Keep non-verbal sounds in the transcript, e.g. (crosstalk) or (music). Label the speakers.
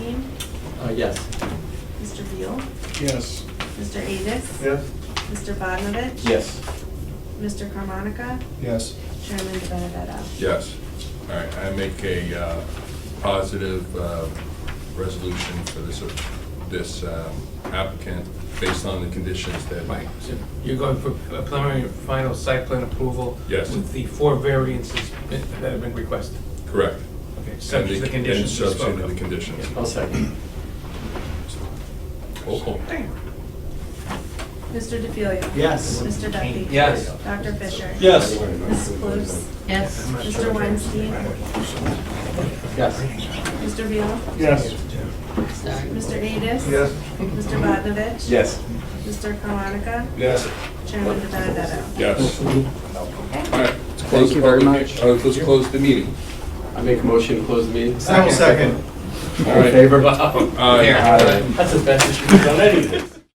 Speaker 1: Uh, yes.
Speaker 2: Mr. Beal?
Speaker 3: Yes.
Speaker 2: Mr. Adis?
Speaker 3: Yes.
Speaker 2: Mr. Badnovich?
Speaker 1: Yes.
Speaker 2: Mr. Carmonica?
Speaker 3: Yes.
Speaker 2: Chairman Benedetto?
Speaker 4: Yes. All right, I make a uh, positive uh, resolution for this, uh, this um, applicant based on the conditions that.
Speaker 5: Right, so you're going for a preliminary and final site plan approval?
Speaker 4: Yes.
Speaker 5: With the four variances that have been requested?
Speaker 4: Correct.
Speaker 5: Okay,
Speaker 4: And
Speaker 5: subject to the conditions we
Speaker 4: And
Speaker 5: spoke
Speaker 4: subject to the
Speaker 5: of.
Speaker 4: conditions.
Speaker 1: I'll second.
Speaker 4: Oh, oh.
Speaker 2: Mr. DeFilia?
Speaker 1: Yes.
Speaker 2: Mr. Duffy?
Speaker 1: Yes.
Speaker 2: Dr. Fisher?
Speaker 1: Yes.
Speaker 2: Mrs. Close?
Speaker 6: Yes.
Speaker 2: Mr. Weinstein?
Speaker 1: Yes.
Speaker 2: Mr. Beal?
Speaker 3: Yes.
Speaker 6: Sorry.
Speaker 2: Mr. Adis?
Speaker 3: Yes.
Speaker 2: Mr. Badnovich?
Speaker 1: Yes.
Speaker 2: Mr. Carmonica?
Speaker 3: Yes.
Speaker 2: Chairman Benedetto?
Speaker 4: Yes. All right. let's close
Speaker 1: Thank
Speaker 4: the
Speaker 1: you very
Speaker 4: public-
Speaker 1: much.
Speaker 4: uh, Let's close the meeting.
Speaker 1: I make a motion to close the meeting.
Speaker 3: Second.
Speaker 4: All right.
Speaker 1: favor? (laughs)
Speaker 4: Aye.
Speaker 1: uh,
Speaker 4: Uh,
Speaker 1: That's the best that you've done anything.